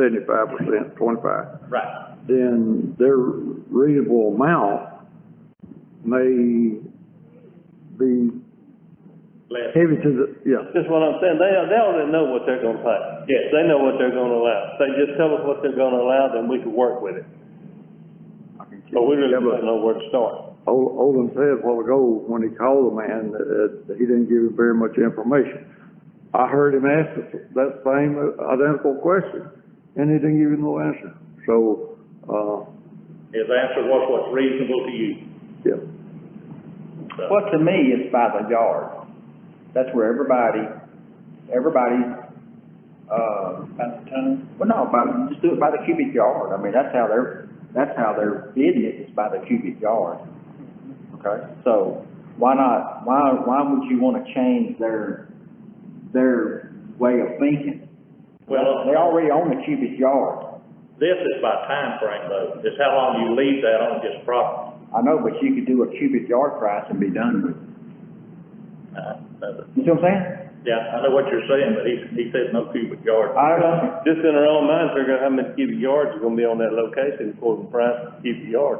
seventy-five percent, twenty-five, Right. then their reasonable amount may be Less. heavy to the, yeah, That's what I'm saying, they, they already know what they're gonna pay. Yes. They know what they're gonna allow. They just tell us what they're gonna allow, then we can work with it. But Oh, we really Yeah, but- don't know where to start. Ol- Olin said a while ago, when he called the man, that that he didn't give him very much information. I heard him ask the- that same identical question, and he didn't give him no answer. So, uh, His answer was what's reasonable to you. yeah, So, Well, to me, it's by the yard. That's where everybody, everybody, uh. By the ton? Well, no, by, just do it by the cubic yard. I mean, that's how they're, that's how they're bidding it, is by the cubic yard. Okay, so why not, why, why would you wanna change their, their way of thinking? well, They already own the cubic yard. this is by time frame though, it's how long you leave that on this property. I know, but you could do a cubic yard price and be done with Uh, it. uh, You see what I'm saying? Yeah, I know what you're saying, but he, he said no cubic yard. I don't know. Just in our own minds, figure out how many cubic yards are gonna be on that location, according to price per cubic yard.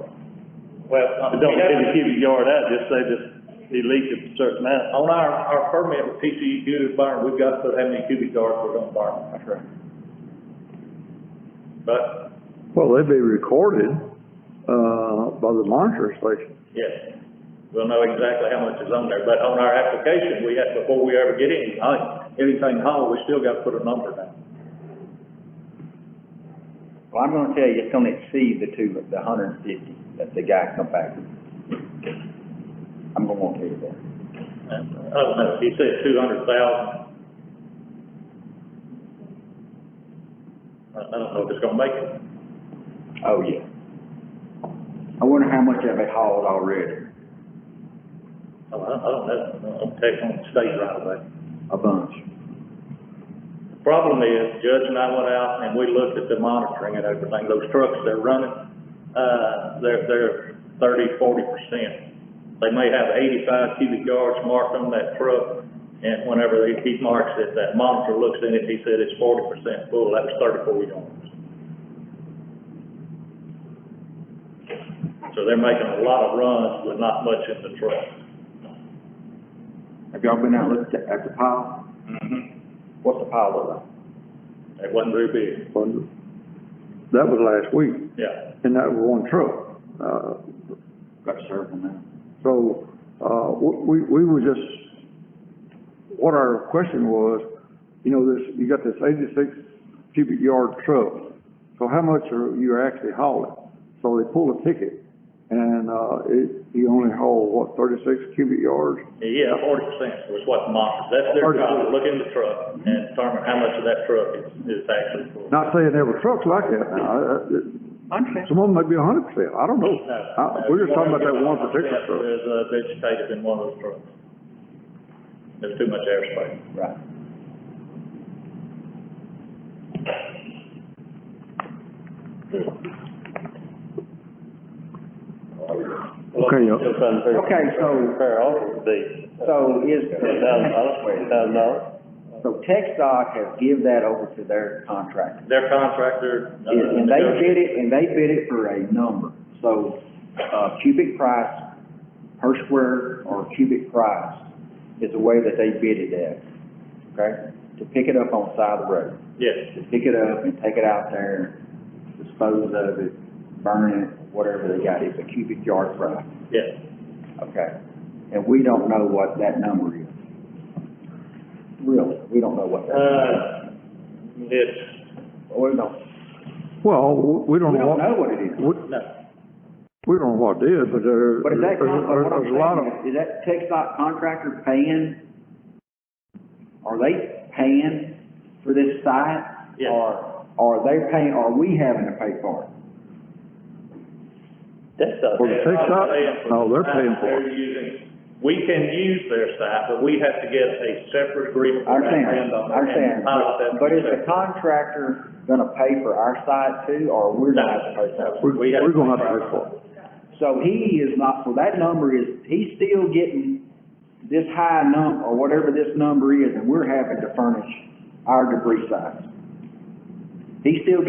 Well, uh, But don't we get have- the cubic yard out, just say this, he leaked it a certain amount. On our, our permit with TCEQ to burn, we've got to put how many cubic yards we're gonna burn. That's right. But, well, they'd be recorded, uh, by the monitor station. yes, we'll know exactly how much is on there, but on our application, we have, before we ever get any, uh, anything hauled, we still gotta put a number down. Well, I'm gonna tell you, it's gonna exceed the two, the hundred and fifty that the guy come back with. I'm gonna want to tell you that. And, I don't know, he said two hundred thousand. I, I don't know if it's gonna make it. Oh, yeah. I wonder how much have they hauled already? I, I I don't know, I'm taking on the state right away. A bunch. The Problem is, Judge and I went out and we looked at the monitoring and everything, those trucks they're running, uh, they're, they're thirty, forty percent. They may have eighty-five cubic yards marked on that truck, and whenever he, he marks it, that monitor looks in it, he said it's forty percent full, that was thirty-four yards. So they're making a lot of runs with not much in the truck. Have y'all been out looked at, at the pile? Mm-hmm. What's the pile look like? It wasn't very big, Well, That was last week, yeah. and that was one truck. Uh, Got several now. So, uh, we, we were just, what our question was, you know, this, you got this eighty-six cubic yard truck, so how much are you actually hauling? So they pulled a ticket, and, uh, it, you only haul, what, thirty-six cubic yards? Yeah, forty percent was what the monitor, that's their 40%. job, to look in the truck and determine how much of that truck is, is actually full. Not saying every truck's like that now, Uh, uh, Understand. some of them may be a hundred percent, I don't know. No, no, I, we're just talking about that one 1% particular truck. There's, uh, vegetative in one of those trucks. There's too much airspace. Right. Okay, uh, Still trying to figure. Okay, so- Fair offer would be So is, ten thousand dollars, thousand dollars. so Tech Dot has give that over to their contractor. Their contractor. uh, And and they negotiated- bid it, and they bid it for a number, so, uh, cubic price per square or cubic price is the way that they bid it at, okay? To pick it up on the side of the road, Yes, to pick it up and take it out there, dispose of it, burn it, whatever they got, it's a cubic yard price, yes. okay? And we don't know what that number is. Really, we don't know what that, Uh, it's, we don't, well, we- we don't we know don't what, know what it is. we, no, we don't know what it is, but there, But is that, con- there's- but what I'm there's a lot of. saying is, is that Tech Dot contractor paying, are they paying for this site? Yes. Or, or are they paying, are we having to pay for it? That's a. For the They're six up? not paying for No, the they're site paying that for They're using, we can use their site, but we have to get a separate agreement. I understand, with our landowner I understand, and file that but- but is the separate. contractor gonna pay for our site too, or we're No, gonna have to pay for it? no, We're, we have we're gonna have pay to for pay it. for it. So he is not, so that number is, he's still getting this high number, or whatever this number is, and we're having to furnish our debris sites. He's still